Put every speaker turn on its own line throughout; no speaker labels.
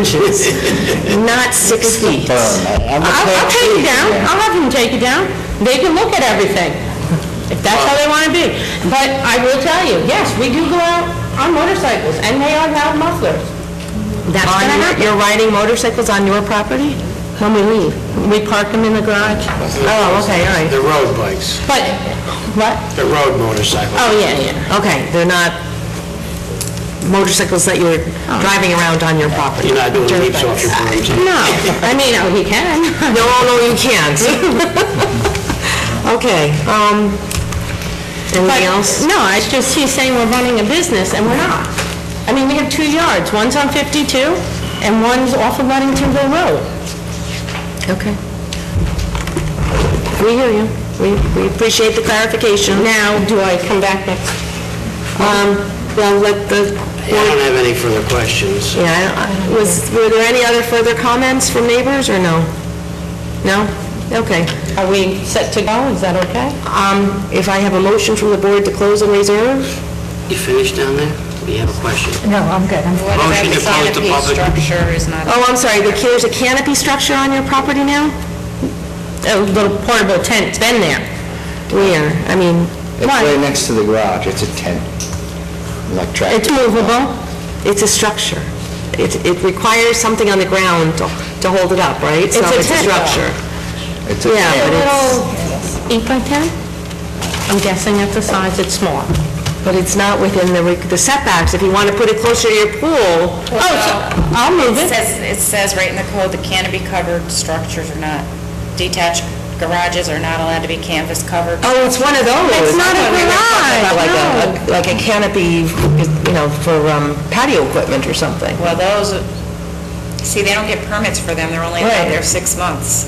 inches, not six feet.
I'm a
I'll, I'll
plant
take it
trees,
down,
man.
I'll have them take it down, they can look at everything, if that's how they wanna be. But I will tell you, yes, we do go out on motorcycles, and they are loud mufflers. That's
On
gonna
your-
happen.
You're riding motorcycles on your property?
When we leave, we park them in the garage.
Oh, okay, all right.
They're road bikes,
But, what?
they're road motorcycles.
Oh, yeah, yeah.
Okay, they're not motorcycles that you're
Oh.
driving around on your property?
You're not doing
Dirt
leaps off
bikes.
your brooms.
No, I mean, oh, he can.
No, no, you can't. Okay, um,
But-
anything else?
No, it's just, he's saying we're running a business, and we're not. I mean, we have two yards, one's on 52, and one's off of Ludingtonville Road.
Okay. We hear you. We, we appreciate the clarification.
Now, do I come back next?
Um, well, let the,
I don't have any further questions.
yeah, I- I- was, were there any other further comments from neighbors, or no? No? Okay.
Are we set to go? Is that okay?
Um, if I have a motion from the board to close and reserve?
You finished down there? We have a question.
No, I'm good. I'm-
What about
Motion
the
to close the
canopy
public-
structure is not...
Oh, I'm sorry, the- there's a canopy structure on your property now?
A little portable tent's been there.
Where? I mean,
It's right next to the garage, it's a tent, like tractor.
It's movable.
it's a structure. It, it requires something on the ground to to hold it up, right?
It's a tent, though.
structure.
It's a
yeah,
tent.
but it's-
Eight by 10? I'm guessing at the size, it's small.
But it's not within the re- the setbacks. If you want to put it closer to your pool,
Oh, so I'll move
It
it.
says, it says right in the code, the canopy covered structures are not, detached garages are not allowed to be canvas covered.
oh, it's one of those.
It's not
I
a
thought we were talking about
garage,
Like a- a, like a canopy, you know, for um, patio equipment or something.
Well, those, see, they don't get permits for them, they're only allowed
Right.
there six months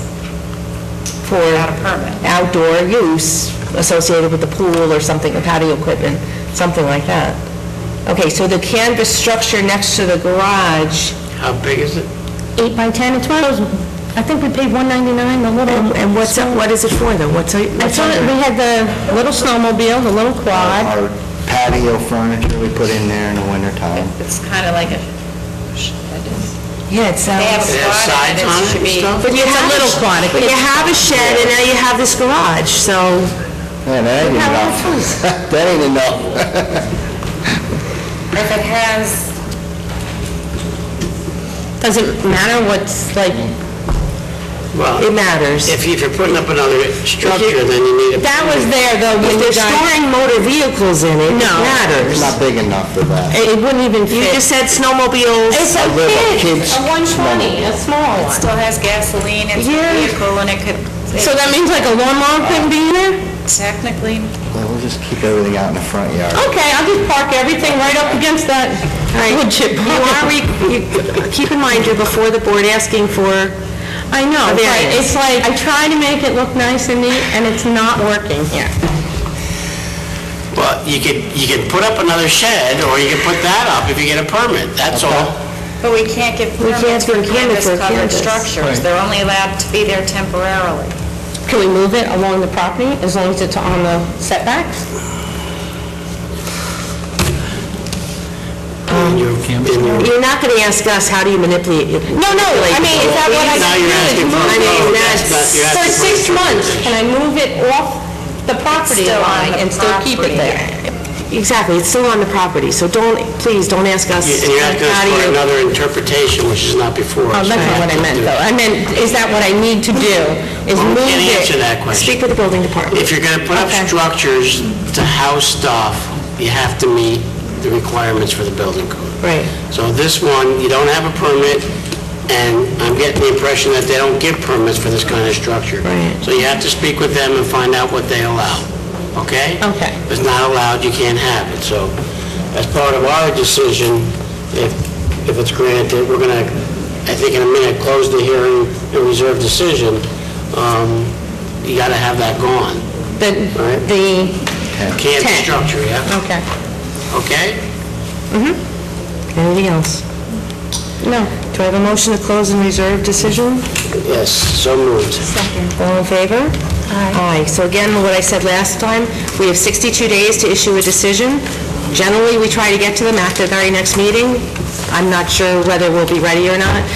For
without a permit.
outdoor use associated with the pool or something, the patio equipment, something like that. Okay, so the canvas structure next to the garage,
How big is it?
Eight by 10, it's one of those, I think we paid 199, the
and
little...
and what's, that- what is it for though? What's, it-
I
what's
saw that
under
we
it?
had the little snowmobile, the little quad.
Our patio furniture we put in there in the wintertime.
It's kind of like a,
Yeah, it
they have
sounds,
a
It has
spot and
sides on
it
it
should
and
be...
stuff?
but you
It's a
have,
little quad, a
a- but you
kid's
have a shed and now you have this garage, so,
Man, that ain't enough. That ain't enough.
If it has,
Doesn't matter what's like,
it
Well,
matters.
if you- if you're putting up another structure, then you need a...
that was there though
If
when you
they're
guys...
storing motor vehicles in it, it
No.
It's
matters.
not big enough for that.
It wouldn't even
You
fit.
just said snowmobiles,
It's a
little
kid,
kid's
a 120, a small one.
still has gasoline, it's a
Yeah.
vehicle, and it could,
So that means like a lawnmower couldn't be in there?
technically,
Well, We'll just keep everything out in the front yard.
Okay, I'll just park everything right up against that wood chip.
you are, re- you- keep in mind, you're before the board asking for
I know, but
Variance.
it's like, I try to make it look nice and neat, and it's not working here.
Well, you could, you could put up another shed, or you could put that up if you get a permit, that's all.
but we can't give
can't
permits for
do a canvas for a canvas.
canvas-covered structures. They're only allowed to be there temporarily.
Can we move it along the property as long as it's on the setbacks?
And you're- and you're-
You're not going to ask us, how do you manipulate?
Um, No, no, I mean, is that what I
Now
can
you're
do?
asking for a
Move it.
vote. That's not- you're
For
asking for a
six months, can I move it off the property
still on
line
the
and still keep it
property.
there?
Exactly, it's still on the property, so don't, please, don't ask us.
and you're asking
how
us
do
for
you-
another interpretation, which is not before
Oh,
us.
that's not what I meant, though. I meant, is that what I need to do? Is
Well, we
move
can't
it?
answer that question.
Speak with the building department.
If you're going to put up
Okay.
structures to house stuff, you have to meet the requirements for the building code.
Right.
So this one, you don't have a permit, and I'm getting the impression that they don't give permits for this kind of structure.
Right.
So you have to speak with them and find out what they allow, okay?
Okay.
If it's not allowed, you can't have it, so as part of our decision, if, if it's granted, we're going to, I think in a minute, close the hearing and reserve decision, um, you got to have that gone.
The,
Right.
the,
Can't
Tent.
structure, yeah,
okay.
okay?
Anything else?
No.
Do I have a motion to close and reserve decision?
Yes, so moved.
All in favor? Aye. Aye. So again, what I said last time, we have 62 days to issue a decision. Generally, we try to get to them after the very next meeting. I'm not sure whether we'll be ready or not,